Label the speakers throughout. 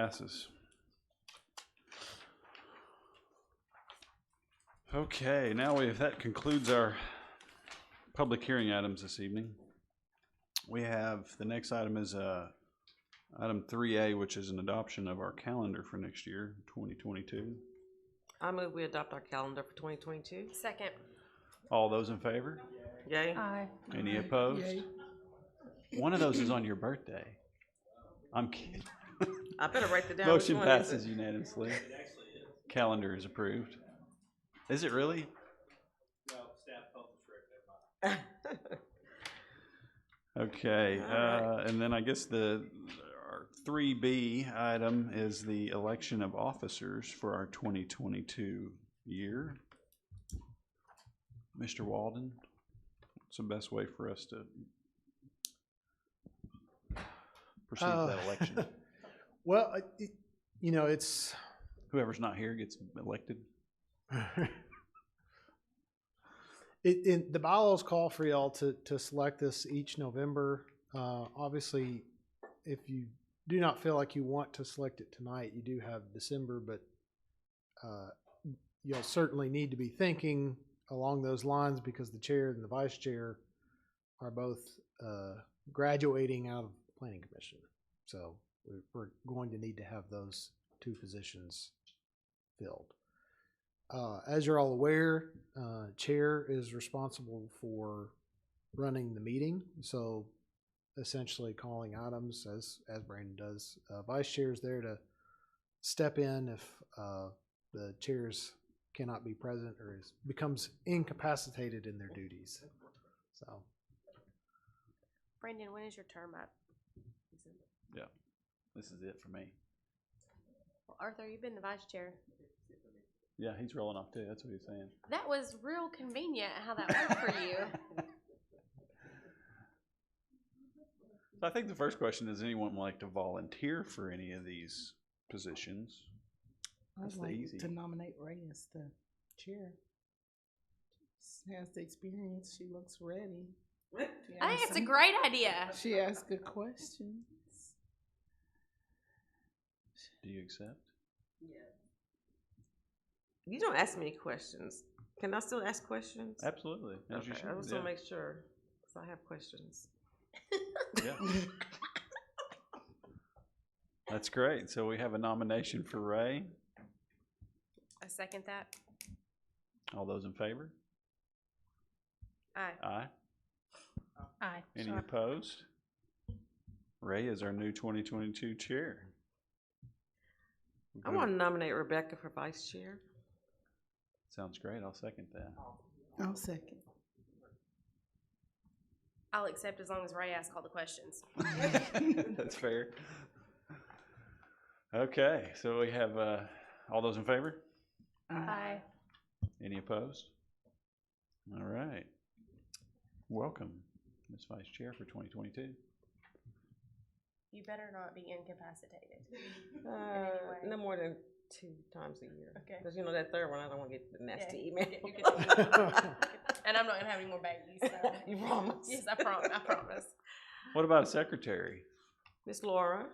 Speaker 1: passes. Okay, now we, if that concludes our public hearing items this evening. We have, the next item is, uh, item three A, which is an adoption of our calendar for next year, twenty twenty-two.
Speaker 2: I move we adopt our calendar for twenty twenty-two.
Speaker 3: Second.
Speaker 1: All those in favor?
Speaker 2: Yay.
Speaker 3: Aye.
Speaker 1: Any opposed? One of those is on your birthday. I'm kidding.
Speaker 2: I better write that down. Which
Speaker 1: Motion
Speaker 2: one is
Speaker 1: passes
Speaker 2: it?
Speaker 1: unanimously. Calendar is approved. Is it really? Okay,
Speaker 2: All right.
Speaker 1: uh, and then I guess the, our three B item is the election of officers for our twenty twenty-two year. Mr. Walden, what's the best way for us to proceed
Speaker 4: Uh,
Speaker 1: with that election?
Speaker 4: Well, I- it, you know, it's
Speaker 1: Whoever's not here gets elected.
Speaker 4: it, it, the bylaws call for y'all to, to select this each November. Uh, obviously, if you do not feel like you want to select it tonight, you do have December, but uh, you'll certainly need to be thinking along those lines because the chair and the vice chair are both uh, graduating out of planning commission. So we're, we're going to need to have those two positions filled. Uh, as you're all aware, uh, chair is responsible for running the meeting, so essentially calling items as as Brandon does. Uh, vice chair is there to step in if uh, the chairs cannot be present or is becomes incapacitated in their duties. So
Speaker 3: Brandon, when is your term up?
Speaker 1: This is it for me.
Speaker 3: Well, Arthur, you've been the vice chair.
Speaker 1: Yeah, he's rolling off too. That's what he's saying.
Speaker 3: That was real convenient how that worked for you.
Speaker 1: So I think the first question is anyone like to volunteer for any of these positions?
Speaker 5: I'd
Speaker 1: That's the easy.
Speaker 5: like to nominate Ray as the chair. She has the experience. She looks ready. She
Speaker 3: I think
Speaker 5: asks
Speaker 3: it's a
Speaker 5: some-
Speaker 3: great idea.
Speaker 5: She asks good questions.
Speaker 1: Do you accept?
Speaker 2: You don't ask me questions. Can I still ask questions?
Speaker 1: Absolutely. As you
Speaker 2: Okay,
Speaker 1: should.
Speaker 2: I just
Speaker 1: yeah.
Speaker 2: want to make sure, 'cause I have questions.
Speaker 1: Yeah. That's great. So we have a nomination for Ray.
Speaker 3: I second that.
Speaker 1: All those in favor?
Speaker 3: Aye.
Speaker 1: Aye.
Speaker 3: Aye.
Speaker 1: Any opposed? Ray is our new 2022 chair.
Speaker 2: I want to nominate Rebecca for vice chair.
Speaker 1: Sounds great. I'll second that.
Speaker 5: I'll second.
Speaker 3: I'll accept as long as Ray asks all the questions.
Speaker 1: That's fair. Okay, so we have, uh, all those in favor?
Speaker 3: Aye.
Speaker 1: Any opposed? All right. Welcome, Ms. Vice Chair for 2022.
Speaker 3: You better not be incapacitated.
Speaker 2: Uh, No more than two times a year.
Speaker 3: Okay.
Speaker 2: Because you know that third one, I don't want to get the nasty email.
Speaker 3: you get And I'm not gonna have any more babies, so.
Speaker 2: You promise?
Speaker 3: Yes, I promise, I promise.
Speaker 1: What about a secretary?
Speaker 2: Miss Laura?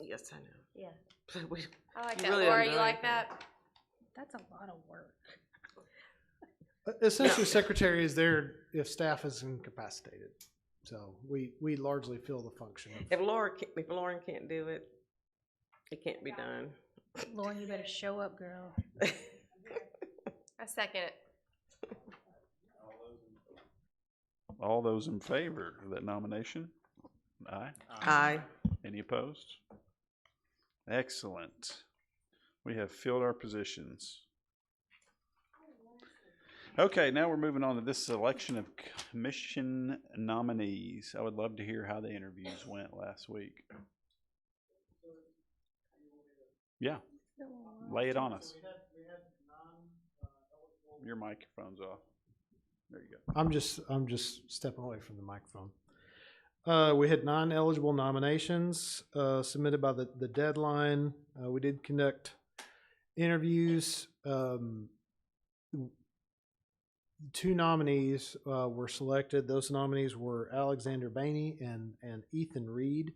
Speaker 2: Yes, I know.
Speaker 3: Yeah.
Speaker 2: But we-
Speaker 3: I like
Speaker 2: You
Speaker 3: that.
Speaker 2: really
Speaker 3: Laura,
Speaker 2: haven't
Speaker 3: you
Speaker 2: done
Speaker 3: like
Speaker 2: anything.
Speaker 3: that? That's a lot of work.
Speaker 4: essentially, secretary is there if staff is incapacitated. So we we largely fill the function. of-
Speaker 2: If Laura, ca- if Lauren can't do it, it can't be done.
Speaker 3: Lauren, you better show up, girl. I second it.
Speaker 1: All those in favor of that nomination? Aye.
Speaker 4: uh,
Speaker 2: Aye.
Speaker 1: Any opposed? Excellent. We have filled our positions. Okay, now we're moving on to this selection of commission nominees. I would love to hear how the interviews went last week. Yeah, lay it on us. Your microphone's off. There you go.
Speaker 4: I'm just I'm just stepping away from the microphone. Uh, we had nine eligible nominations uh, submitted by the the deadline. Uh, we did conduct interviews. Um, two nominees uh, were selected. Those nominees were Alexander Bainey and and Ethan Reed.